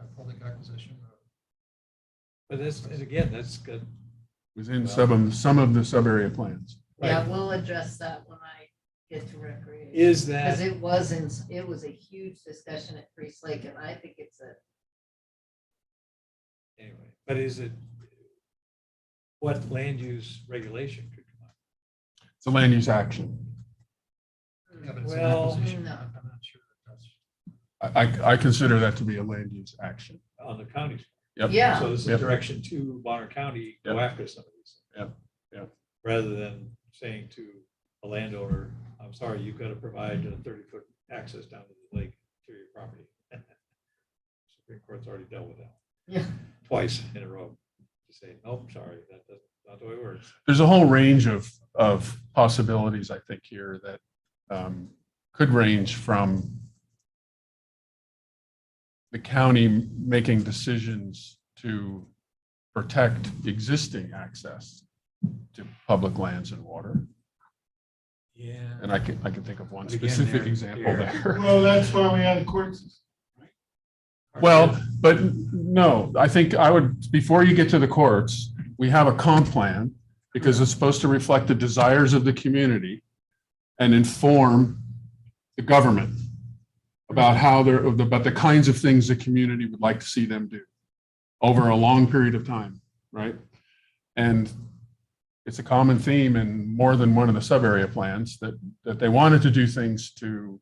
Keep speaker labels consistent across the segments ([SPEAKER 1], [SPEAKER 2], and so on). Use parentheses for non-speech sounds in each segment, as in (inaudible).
[SPEAKER 1] strategic acquisition of
[SPEAKER 2] But that's, and again, that's good.
[SPEAKER 3] Within some of, some of the sub-area plans.
[SPEAKER 4] Yeah,
[SPEAKER 2] Right.
[SPEAKER 4] we'll address that when I get to recreation.
[SPEAKER 2] Is that,
[SPEAKER 4] Because it wasn't, it was a huge discussion at Priest Lake and I think it's a,
[SPEAKER 2] anyway, but is it, what land use regulation could come up?
[SPEAKER 3] It's a land use action.
[SPEAKER 1] Yeah, but it's an
[SPEAKER 2] Well-
[SPEAKER 1] acquisition.
[SPEAKER 4] No.
[SPEAKER 1] I'm I'm not sure that that's.
[SPEAKER 3] I, I, I consider that to be a land use action.
[SPEAKER 2] on the county?
[SPEAKER 3] Yep.
[SPEAKER 4] yeah,
[SPEAKER 2] So this
[SPEAKER 3] Yep.
[SPEAKER 2] is direction to Bonner County, go
[SPEAKER 3] Yep.
[SPEAKER 2] after some of these.
[SPEAKER 3] Yep. Yep.
[SPEAKER 2] Rather than saying to a landowner, I'm sorry, you've got to provide a thirty-foot access down to the lake through your property. (laughs) Supreme Court's already dealt with that.
[SPEAKER 4] Yeah.
[SPEAKER 2] Twice in a row, to say, nope, sorry, that, that's not the way it works.
[SPEAKER 3] There's a whole range of, of possibilities, I think, here that um, could range from the county making decisions to protect existing access to public lands and water.
[SPEAKER 2] Yeah.
[SPEAKER 3] And I can, I can think of one
[SPEAKER 2] But again,
[SPEAKER 3] specific
[SPEAKER 2] they're-
[SPEAKER 3] example
[SPEAKER 2] they're-
[SPEAKER 3] there.
[SPEAKER 5] Well, that's why we had a court system.
[SPEAKER 3] Well, but no, I think I would, before you get to the courts, we have a comp plan because it's supposed to reflect the desires of the community and inform the government about how they're, about the kinds of things the community would like to see them do over a long period of time, right? And it's a common theme in more than one of the sub-area plans that, that they wanted to do things to,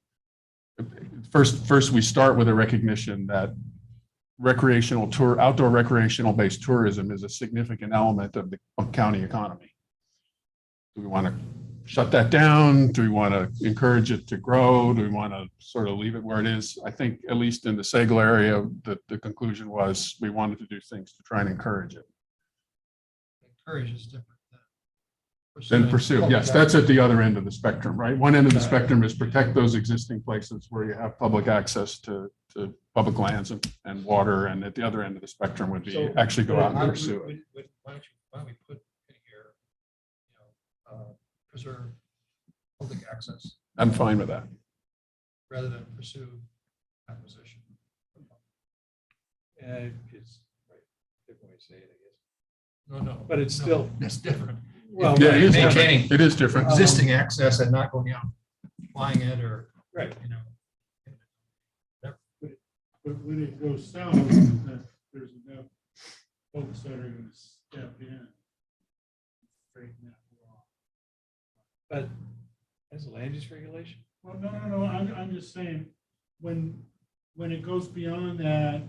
[SPEAKER 3] first, first, we start with a recognition that recreational tour, outdoor recreational based tourism is a significant element of the county economy. Do we want to shut that down? Do we want to encourage it to grow? Do we want to sort of leave it where it is? I think at least in the Sagal area, the, the conclusion was we wanted to do things to try and encourage it.
[SPEAKER 1] Encourage is different than. pursuing
[SPEAKER 3] Then pursue,
[SPEAKER 1] public
[SPEAKER 3] yes, that's
[SPEAKER 1] action.
[SPEAKER 3] at the other end of the spectrum, right? One end of the spectrum is protect those existing places where you have public access to, to public lands and, and water. And at the other end of the spectrum would be
[SPEAKER 1] So,
[SPEAKER 3] actually go out
[SPEAKER 1] I
[SPEAKER 3] and
[SPEAKER 1] would-
[SPEAKER 3] pursue it.
[SPEAKER 1] would- would- Why don't you, why don't we put in here, you know, uh, preserve public access
[SPEAKER 3] I'm fine with that.
[SPEAKER 1] rather than pursue acquisition?
[SPEAKER 2] Yeah, it's, right, different way to say it, I
[SPEAKER 1] No, no.
[SPEAKER 2] But it's
[SPEAKER 1] no,
[SPEAKER 2] still-
[SPEAKER 1] It's different.
[SPEAKER 2] guess. Well,
[SPEAKER 3] Yeah, it is different.
[SPEAKER 1] Maintaining
[SPEAKER 3] It is different.
[SPEAKER 1] Existing access and not going out, flying it or,
[SPEAKER 2] Right.
[SPEAKER 1] you know.
[SPEAKER 5] But when it goes south, that there's enough folks that are gonna step in. Straighten that wall.
[SPEAKER 2] But as a land use regulation,
[SPEAKER 5] Well, no, no, no, I'm, I'm just saying, when, when it goes beyond that,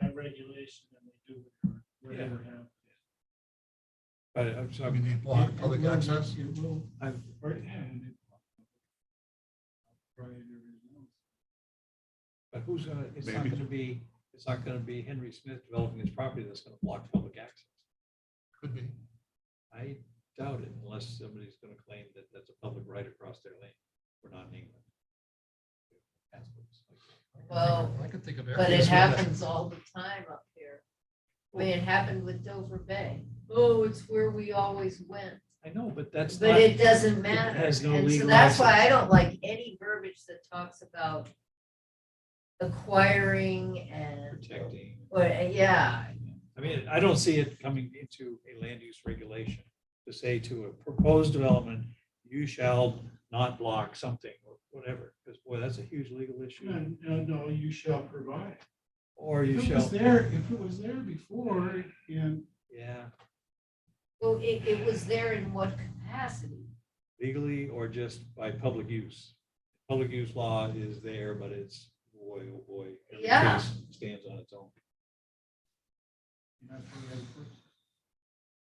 [SPEAKER 5] that regulation, then they do whatever, whatever happens.
[SPEAKER 2] but uh, I'm
[SPEAKER 1] I
[SPEAKER 2] talking,
[SPEAKER 1] mean, block public
[SPEAKER 5] It will-
[SPEAKER 1] access.
[SPEAKER 5] It will.
[SPEAKER 2] I'm,
[SPEAKER 5] Right. and it- Right, everything else.
[SPEAKER 2] But who's gonna, it's not
[SPEAKER 3] Maybe.
[SPEAKER 2] gonna be, it's not gonna be Henry Smith developing his property that's gonna block public access.
[SPEAKER 1] Could be.
[SPEAKER 2] I doubt it unless somebody's gonna claim that that's a public right across their lane. We're not in England. That's what it's like.
[SPEAKER 4] Well,
[SPEAKER 1] I could think of.
[SPEAKER 4] but it
[SPEAKER 1] areas where that-
[SPEAKER 4] happens all the time up here. I mean, it happened with Dover Bay. Oh, it's where we always went.
[SPEAKER 2] I know, but that's not,
[SPEAKER 4] But it doesn't matter.
[SPEAKER 2] has no
[SPEAKER 4] And so
[SPEAKER 2] legal
[SPEAKER 4] that's why I
[SPEAKER 2] access.
[SPEAKER 4] don't like any verbiage that talks about acquiring and,
[SPEAKER 2] protecting.
[SPEAKER 4] or, yeah,
[SPEAKER 2] I mean, I don't see it coming into a land use regulation to say to a proposed development, you shall not block something or whatever, because boy, that's a huge legal issue.
[SPEAKER 5] No, no, no, you shall provide.
[SPEAKER 2] Or you
[SPEAKER 5] If it was
[SPEAKER 2] shall,
[SPEAKER 5] there, if it was there before, and
[SPEAKER 2] yeah,
[SPEAKER 4] well, it, it was there in what capacity?
[SPEAKER 2] legally or just by public use. Public use law is there, but it's, boy, oh boy. every
[SPEAKER 4] Yeah.
[SPEAKER 2] case Stands on its own.
[SPEAKER 5] that's what I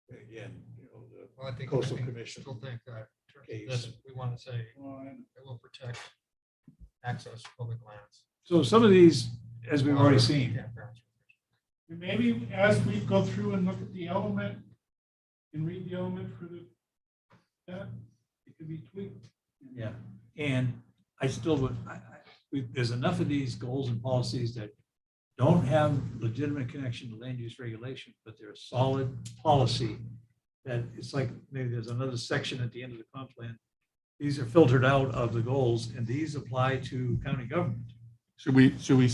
[SPEAKER 5] put.
[SPEAKER 2] Again, you know, the-
[SPEAKER 1] Well, I think, I
[SPEAKER 2] Coastal
[SPEAKER 1] think,
[SPEAKER 2] Commission.
[SPEAKER 1] still think that, in terms of
[SPEAKER 2] Case.
[SPEAKER 1] this, we want to say, it
[SPEAKER 5] Well, I-
[SPEAKER 1] will protect access to public lands.
[SPEAKER 2] So some of these, as we've already
[SPEAKER 1] Water,
[SPEAKER 2] seen,
[SPEAKER 1] campgrounds.
[SPEAKER 5] And maybe as we go through and look at the element and read the element for the, that, it could be tweaked.
[SPEAKER 2] yeah, and I still would, I, I, we, there's enough of these goals and policies that don't have legitimate connection to land use regulation, but they're a solid policy. That it's like, maybe there's another section at the end of the comp plan. These are filtered out of the goals and these apply to county government.
[SPEAKER 3] Should we, should we